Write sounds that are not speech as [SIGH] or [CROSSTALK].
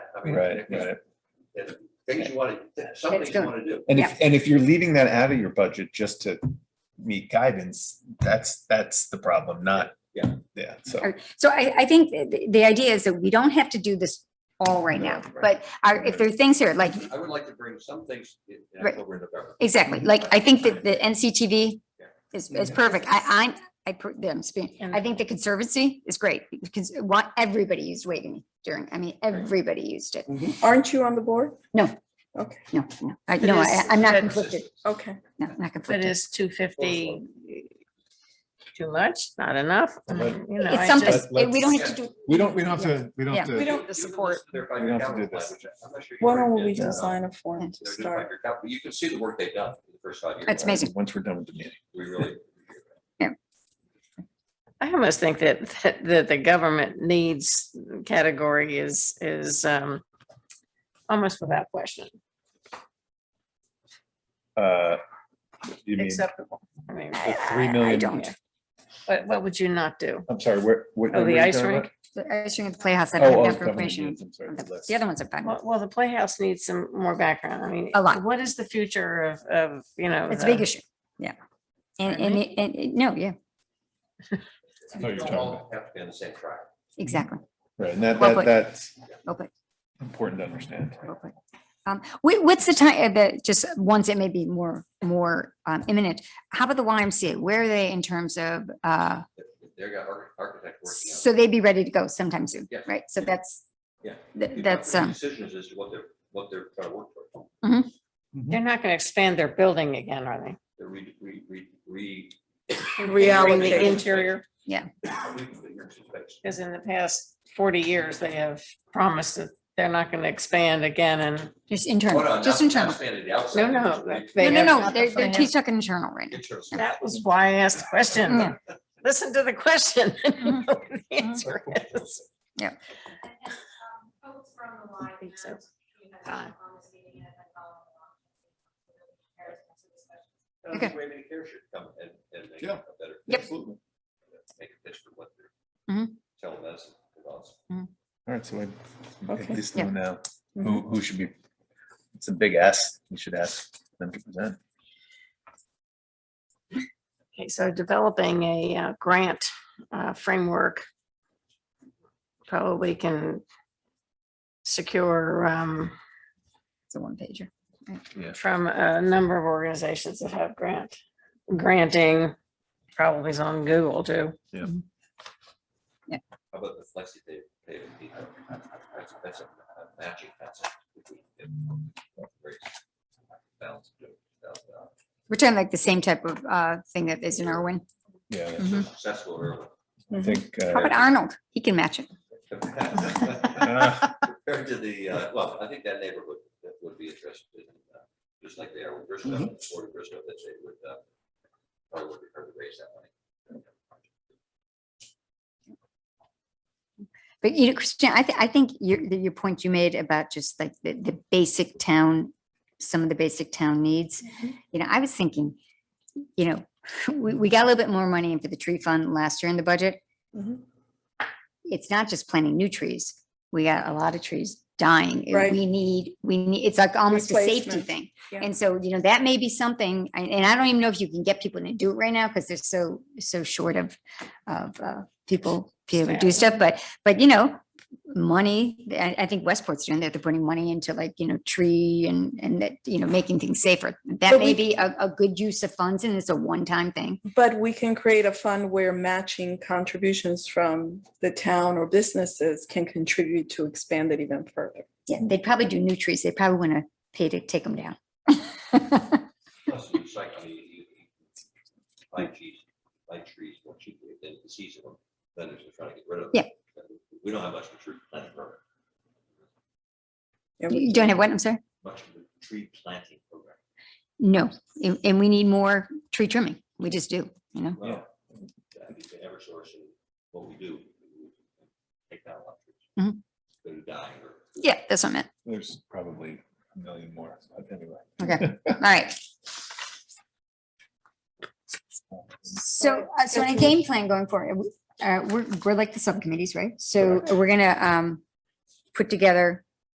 I mean, Right, if- right. if Things you want to, some It's things you good. want to do. And if, and if you're leaving that out of your budget just to meet guidance, that's, that's the problem, not. Yeah. Yeah, so. Or- So I, I think the, the idea is that we don't have to do this all right now, No, right. but our, if there are things here, like, I would like to bring some things in in Right. October and November. exactly, like, I think that the NCTV Yeah. is, is perfect. I, I'm, I, per- yeah, I'm speaking, I think the conservancy is great because what, everybody used Waveney during, I mean, everybody used it. Aren't you on the board? No, no, I, no, I, is- I'm not that- conflicted, Okay. no, I'm not But conflicted. is two fifty too much, not enough? I But- mean, you know, I It's something, just- it- we don't have to do, We don't, we don't have to, we don't Yeah. have We to, don't, You can listen support. to their We don't have to five-year do this. calendar plan, which I'm not sure you why don't already we did. They're design a form to doing start? five-year cal- You can see the work they've done in the first five years. That's amazing. Once we're done with the meeting. We really. I almost think that, that- that the government needs category is, is, um, almost without question, Uh, You mean, acceptable. I mean, the three uh, I million, don't. what, what would you not do? I'm sorry, where? what- Oh, where the are you ice talking rink? about? The ice rink at the Playhouse, I Oh, don't oh, have that government information. needs, I'm sorry, on the the- list. The other ones are fine. Well, well, the Playhouse needs some more background. I mean. A lot. What is the future of, of, you know? It's a the- big issue, yeah. And, uh, Pardon and, it- and, it- no, yeah, No, you're You don't talking all Have to be on the same track. exactly. Right, and that, Well, that, but- that's Okay, important to understand. okay. Um, wh- what's the time, the, just ones that may be more, more um, imminent. How about the YMCA? Where are they in terms of, uh, They've got arch- architect working on. it. so they'd be ready to go sometime soon, Yeah. right? So that's, Yeah. th- They've got that's, their um, Decisions as to what they're, what they're trying to work for. They're not going to expand their building again, are they? They're re, re, re, re. Bring Reallocate. The interior, reconfiguring some space. because in the past forty years, they have promised that they're not going to expand again and just Oh, no, internal, not- just not internal. expanded the outside, No, no. just like, re- they No, no, no, have- they're, they they're, have- he's talking internal right now. internal space. That was why I asked the question. Yeah. Listen to the question. [LAUGHS] and you Mhm. know what the answer is. And and, um, folks from the line. think so. have, you know, Fine. on this meeting and have followed along. Comparison to this session. I think Raymond Care should come and, and make Yeah. a better. Yep. Absolutely. Make a pitch for what they're Mhm. telemedicine about. All right, so I at Okay. least Yeah. Mm-hmm. know now who, who should be, it's a big ask, we should ask them to present. Okay, so developing a uh, grant uh, framework probably can secure um, It's a one pager. from a number of organizations that have grant. Granting probably is on Google too. How about the flexi pay, pay to people? That's, that's a a matching concept. If we can raise balance to $1,000. We're talking like the same type of, uh, thing that is in Irwin. Yeah, Mhm. Successful I think. uh, How about Arnold? He can match it. early. [LAUGHS] Uh, Compared to the, uh, well, I think that neighborhood that would be interested in, uh, just like they are with Bristow, Mm-hmm. or Bristow, that they would, uh, probably would be hard to raise that money. But you know, Christian, I, thi- I think your, the- your point you made about just like the, the basic town, some of the basic town needs. You know, I was thinking, you know, [LAUGHS] we, we got a little bit more money into the tree fund last year in the budget. Mhm. It's not just planting new trees. We got a lot of trees dying. and Right. We need, we need, it's like almost a safety Replacement. thing. Yeah. And so, you know, that may be something, and and I don't even know if you can get people to do it right now because they're so, so short of, of uh, people, people to do stuff, but, but you know, money, I, I think Westport's doing that, they're putting money into like, you know, tree and, and that, you know, making things safer. That But may we- be a, a good use of funds and it's a one-time thing. But we can create a fund where matching contributions from the town or businesses can contribute to expand it even further. Yeah, they'd probably do new trees, they probably want to pay to take them down. Plus, you cycle, you, you, you buy trees, buy trees more cheaply than the season, when vendors are trying to get rid of. them. We don't have much of a tree planting program, And we- You don't have what, I'm sorry? much of a tree planting program. No, and, and we need more tree trimming, we just do, you know? Well, I think the Eversource and what we do, we take down a lot of trees. Mhm. They're dying or. Yeah, that's what I meant. There's probably a million more, but anyway. Okay, all right. So, uh, so in a game plan going forward, uh, we're, we're like the subcommittees, right? So we're gonna, um, put together